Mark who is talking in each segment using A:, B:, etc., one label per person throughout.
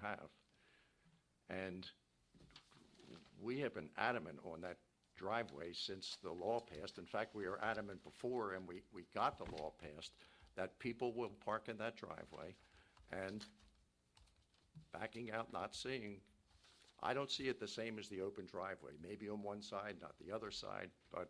A: path. And we have been adamant on that driveway since the law passed. In fact, we were adamant before, and we, we got the law passed, that people will park in that driveway and backing out, not seeing. I don't see it the same as the open driveway, maybe on one side, not the other side, but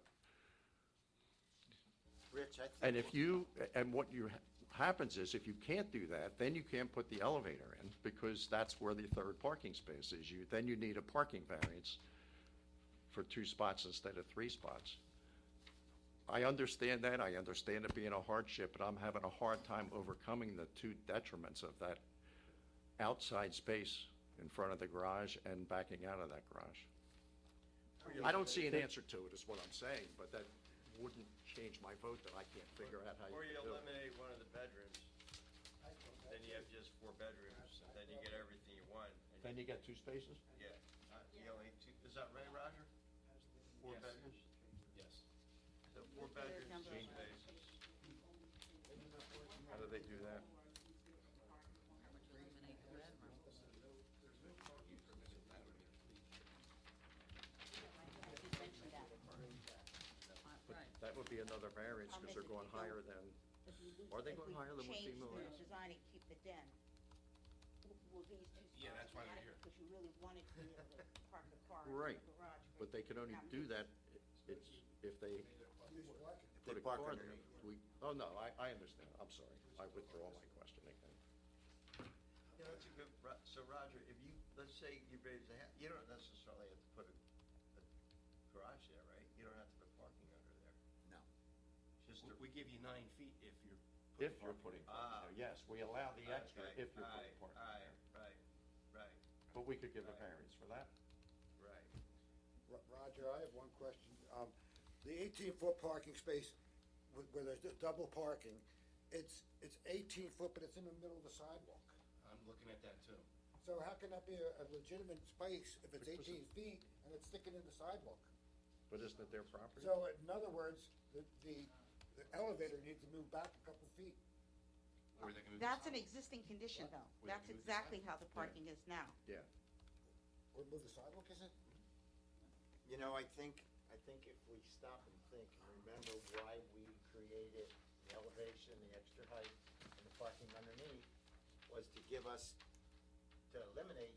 B: Rich, I think.
A: And if you, and what you, happens is if you can't do that, then you can't put the elevator in because that's where the third parking space is. You, then you need a parking variance for two spots instead of three spots. I understand that. I understand it being a hardship, but I'm having a hard time overcoming the two detriments of that outside space in front of the garage and backing out of that garage. I don't see an answer to it, is what I'm saying, but that wouldn't change my vote that I can't figure out how you
C: Or you
A: could do it.
C: eliminate one of the bedrooms, then you have just four bedrooms, and then you get everything you want, and
A: Then you get two spaces?
C: you get, uh, you only two, is that right, Roger? Four bedrooms?
D: Yes.
C: So four bedrooms, two spaces.
A: How do they do that? That would be another variance because they're going higher than, Are they going higher than what FEMA
E: If we
A: is?
E: change the design and keep the den, w- will these two
D: Yeah,
E: spots
D: that's why
E: be
D: they're
E: adequate? Because you really wanted to be able to park the car in the
A: Right,
E: garage. for-
A: but they can only do that it's, if they put a
B: park
A: car
B: in
A: there.
B: there.
A: We, oh, no, I, I understand. I'm sorry. I withdraw my question again.
C: Yeah, that's a good, Ro- so Roger, if you, let's say you raise the, ha- you don't necessarily have to put a, a garage there, right? You don't have to put parking under there.
B: No.
C: Just
D: We-
C: a-
D: We give you nine feet if you're.
A: If you're putting
C: Ah.
A: parking there, yes, we allow the extra
C: Okay,
A: if you're putting parking
C: Ah. right,
A: there.
C: Right, right, right,
A: But we could give a variance for that.
C: right.
B: Ro- Roger, I have one question. Um, the eighteen-foot parking space where, where there's the double parking, it's, it's eighteen foot, but it's in the middle of the sidewalk.
D: I'm looking at that too.
B: So how can that be a, a legitimate space if it's
A: Because
B: eighteen feet and it's sticking in the sidewalk?
A: But isn't it their property?
B: So in other words, the, the, the elevator needs to move back a couple feet.
D: Or they can move the
E: That's an
D: sidewalk.
E: existing condition, though.
D: Where they
E: That's
D: move the
E: exactly how the parking is now.
A: Yeah.
B: Or move the sidewalk, is it?
F: You know, I think, I think if we stop and think and remember why we created the elevation, the extra height, and the parking underneath, was to give us, to eliminate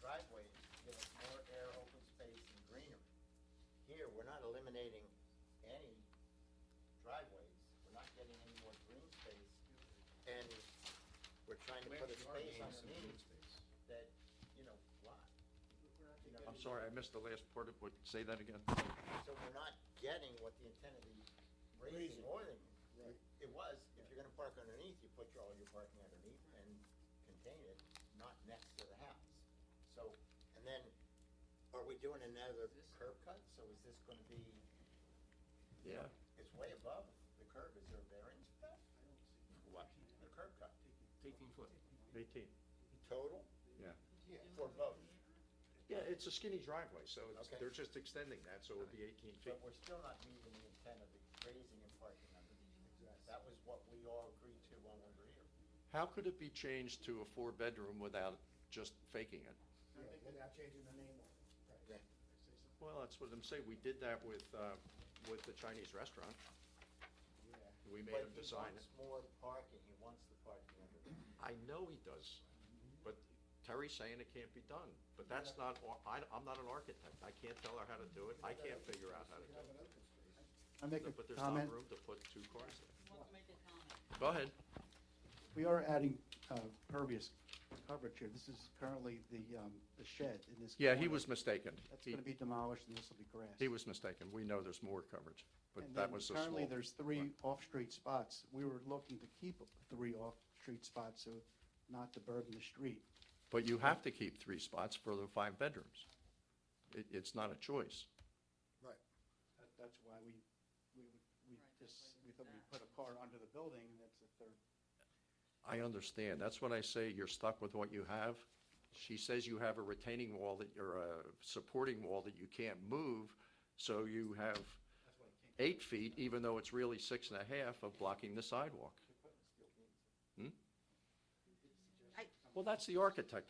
F: driveways, give us more air, open space, and greenery. Here, we're not eliminating any driveways, we're not getting any more green space, and we're trying to
D: We
F: put a
D: actually are
F: space
D: gaining some green
F: underneath
D: space.
F: that, you know, lot. You know,
A: I'm sorry, I missed the last part of what, say that again.
F: so we're not getting what the intent of the raising
B: Raising.
F: or the,
B: Right.
F: it was, if you're gonna park underneath, you put your, all your parking underneath and contain it, not next to the house. So, and then, are we doing another curb cut? So is this gonna be,
A: Yeah.
F: it's way above the curb, is there a variance for that? What? The curb cut,
D: It's Eighteen foot.
A: Eighteen.
F: total
A: Yeah.
F: for both,
A: Yeah, it's a skinny driveway, so it's-
F: Okay.
A: they're just extending that, so it would be eighteen feet.
F: but we're still not meeting the intent of the raising and parking underneath. That was what we all agreed to when we were here.
A: How could it be changed to a four-bedroom without just faking it?
B: Without changing the name on it.
F: Yeah.
A: Well, that's what I'm saying, we did that with, uh, with the Chinese restaurant. We made
F: But
A: them
F: he
A: design it.
F: wants more parking, he wants the parking under there.
A: I know he does, but Terry's saying it can't be done, but that's not, ar- I, I'm not an architect, I can't tell her how to do it, I can't figure out how to do it.
G: I make
A: But
G: a
A: there's not
G: comment.
A: room to put two cars there. Go ahead.
G: We are adding uh, pervious coverage here. This is currently the, um, the shed in this.
A: Yeah, he
G: corner.
A: was mistaken.
G: That's
A: He,
G: going to be demolished and this will be grass.
A: he was mistaken, we know there's more coverage, but
G: And
A: that
G: then
A: was a small.
G: Currently, there's three off-street spots. We were looking to keep three off-street spots, so not to burden the street.
A: But you have to keep three spots for the five bedrooms. It, it's not a choice.
B: Right.
G: That- That's why we, we, we just, we thought we'd put a car under the building and that's the third
A: I understand. That's what I say, you're stuck with what you have. She says you have a retaining wall that, or a supporting wall that you can't move, so you have eight feet, even though it's really six and a half of blocking the sidewalk.
E: I-
A: Well, that's the architect